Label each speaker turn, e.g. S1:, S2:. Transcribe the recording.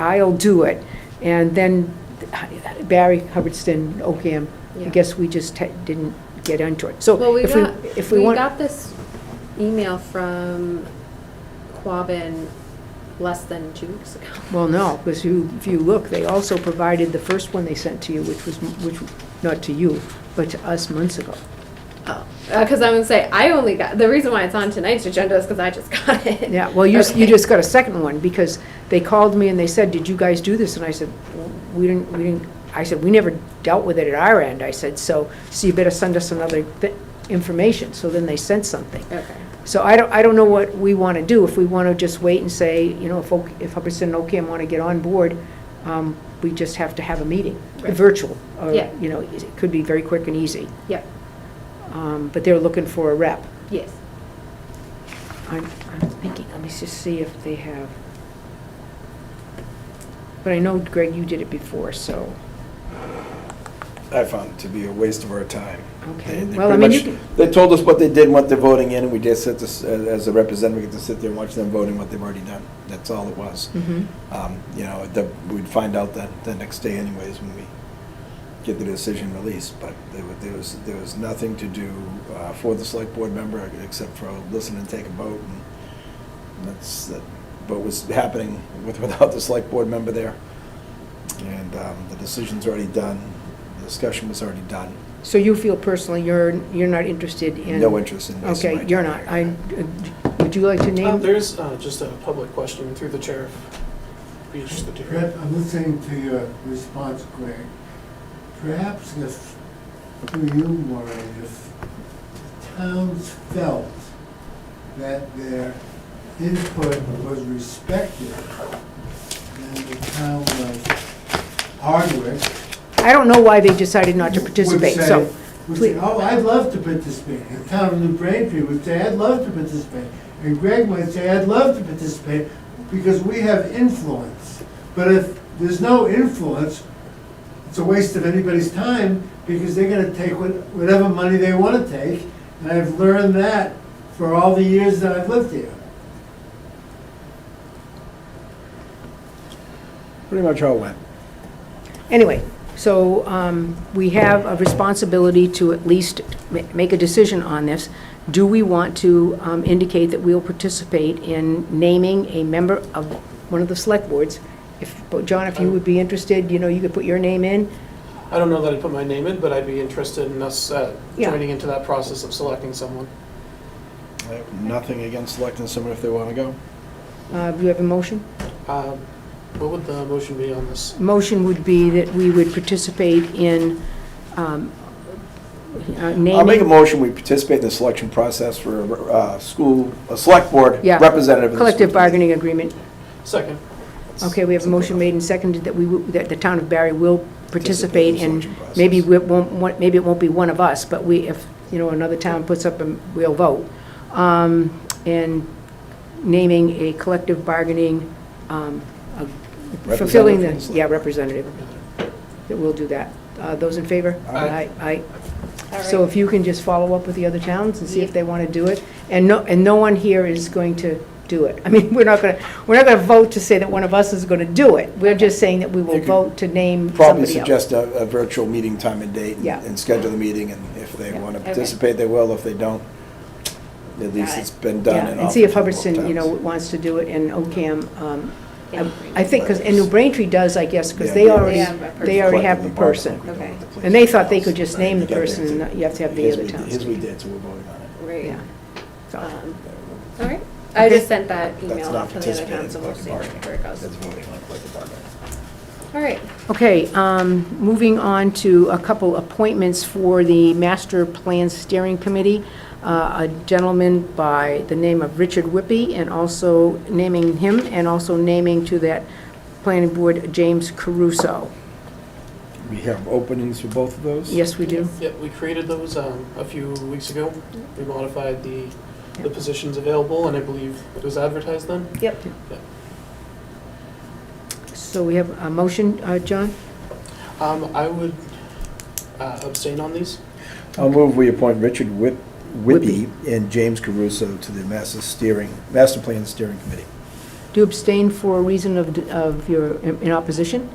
S1: I'll do it. And then Barry, Hubbardston, Oakham, I
S2: Yeah.
S1: guess we just te- didn't get into it. So
S2: Well, we
S1: if we,
S2: got,
S1: if we
S2: we
S1: want.
S2: got this email from Quabbin less than two weeks ago.
S1: Well, no, because you, if you look, they also provided the first one they sent to you, which was, m- which, not to you, but to us months ago.
S2: Oh, because I'm gonna say, I only got, the reason why it's on tonight's agenda is because I just got it.
S1: Yeah, well, you, s- you
S2: Okay.
S1: just got a second one, because they called me and they said, did you guys do this? And I said, "Well, we didn't, we didn't, I said, we never dealt with it at our end, I said, so, so you better send us another bit, information, so then they sent something.
S2: Okay,
S1: So I don't, I don't know what we want to do, if we want to just wait and say, you know, if, Oak- if Hubbardston and Ocam want to get on board, um, we just have to have a meeting,
S2: Right.
S1: virtual, or,
S2: Yeah.
S1: you know, it could be very quick and easy.
S2: yep,
S1: Um, But they're looking for a rep.
S2: yes.
S1: I'm, I'm thinking, let me just see if they have. But I know, Greg, you did it before, so,
S3: I found it to be a waste of our time.
S1: Okay.
S3: They- they
S1: Well, I
S3: pretty
S1: mean, you
S3: much- They told us what they did, and what they're voting in, and we just sit, this- uh, as a representative, we get to sit there and watch them voting what they've already done. That's all it was.
S1: Mhm.
S3: Um, You know, the- we'd find out that the next day anyways, when we get the decision released, but there wa- there was, there was nothing to do uh, for the select board member, except for listen and take a vote, and that's, that vote was happening with, without the select board member there. And um, the decision's already done, the discussion was already done,
S1: so you feel personally, you're, you're not interested in?
S3: no interest in this.
S1: Okay, you're not. I, would you like to
S4: Uh,
S1: name?
S4: There is uh, just a public question through the chair. if you're interested to hear
S5: Brett,
S4: it.
S5: I'm listening to your response, Greg. Perhaps if, through you, Maureen, if towns felt that their input was respected, then the town of Hardwick
S1: I don't know why they decided not to
S5: would
S1: participate,
S5: say-
S1: so.
S5: Would
S1: please-
S5: say, oh, I'd love to participate. The town of New Braintree would say, I'd love to participate. And Greg would say, I'd love to participate because we have influence. But if there's no influence, it's a waste of anybody's time because they're gonna take what- whatever money they wanna take. And I've learned that for all the years that I've lived here.
S3: Pretty much all went.
S1: Anyway, so um, we have a responsibility to at least ma- make a decision on this. Do we want to um, indicate that we'll participate in naming a member of one of the select boards? If, but John, if you would be interested, you know, you could put your name in.
S4: I don't know that I'd put my name in, but I'd be interested in us uh,
S1: Yeah.
S4: joining into that process of selecting someone.
S3: I have Nothing against selecting someone if they want to go.
S1: Uh, Do you have a motion?
S4: Um, What would the motion be on this?
S1: Motion would be that we would participate in um, uh, naming.
S3: I'll make a motion, we participate in the selection process for a school, a select board
S1: Yeah.
S3: representative. of the
S1: Collective
S3: school
S1: bargaining
S3: committee.
S1: agreement.
S4: Second.
S1: Okay, we have a motion made and seconded that we, will- that the town of Barry will participate
S3: in
S1: in
S3: the selection
S1: Maybe
S3: process.
S1: we won't, want- maybe it won't be one of us, but we, if, you know, another town puts up, a we'll vote. Um, And naming a collective bargaining, um, of- fulfilling the,
S3: Representative.
S1: yeah, representative, that we'll do that. Uh, Those in favor?
S4: Aye.
S1: Aye.
S2: All right.
S1: So um, if you can just follow up with the other towns and see if
S2: Yeah.
S1: they want to do it, and no, and no one here is going to do it. I mean, we're not going to, we're not going to vote to say that one of us is going to do it. We're just saying that we will
S3: You could
S1: vote to name somebody else.
S3: Probably suggest a, a virtual meeting time and date and-
S1: Yeah.
S3: and schedule the meeting, and if they
S1: Yeah,
S3: want to
S2: okay.
S3: participate, they will. If they don't, at least
S2: Got it.
S3: it's been
S1: Yeah,
S3: done.
S1: and see if
S3: offered to both
S1: Hubbardston, you know,
S3: towns.
S1: wants to do it, and OCAM, um,
S2: Yeah.
S1: I I think, 'cause- and New Braintree does, I guess, because
S3: Yeah,
S1: they
S3: they-
S1: already,
S2: Yeah, but
S1: they already have the
S3: Collectively bargain,
S1: person.
S3: we don't
S2: Okay.
S3: have to place
S1: And they
S3: anything
S1: thought they
S3: else.
S1: could just name the
S3: You got that
S1: person, and
S3: too.
S1: not- you have to have the
S3: His
S1: other
S3: we did-
S1: towns
S3: His
S1: do
S3: we
S1: it.
S3: did, so we're voting on it.
S2: Right.
S1: Yeah. So,
S2: Um, All right, I
S1: Okay.
S2: just sent that
S3: That's
S2: email
S3: not
S2: out to the other
S3: participating in
S2: towns, so we'll
S3: collective
S2: see
S3: bargaining.
S2: where it goes.
S3: That's voting on collective bargaining.
S2: All right,
S1: Okay, um, moving on to a couple appointments for the Master Plan Steering Committee. Uh, A gentleman by the name of Richard Whippy, and also naming him, and also naming to that planning board James Caruso.
S3: We have openings for both of those?
S1: Yes, we do?
S4: Yeah, we created those um, a few weeks ago. We modified the, the positions available, and I believe it was advertised then.
S2: yep.
S1: So we have a motion, uh, John?
S4: Um, I would uh, abstain on these.
S3: I'll move we appoint Richard Whip- Whippy and James Caruso to the Master Steering, Master Plan Steering Committee.
S1: Do you abstain for a reason of, of your, in opposition?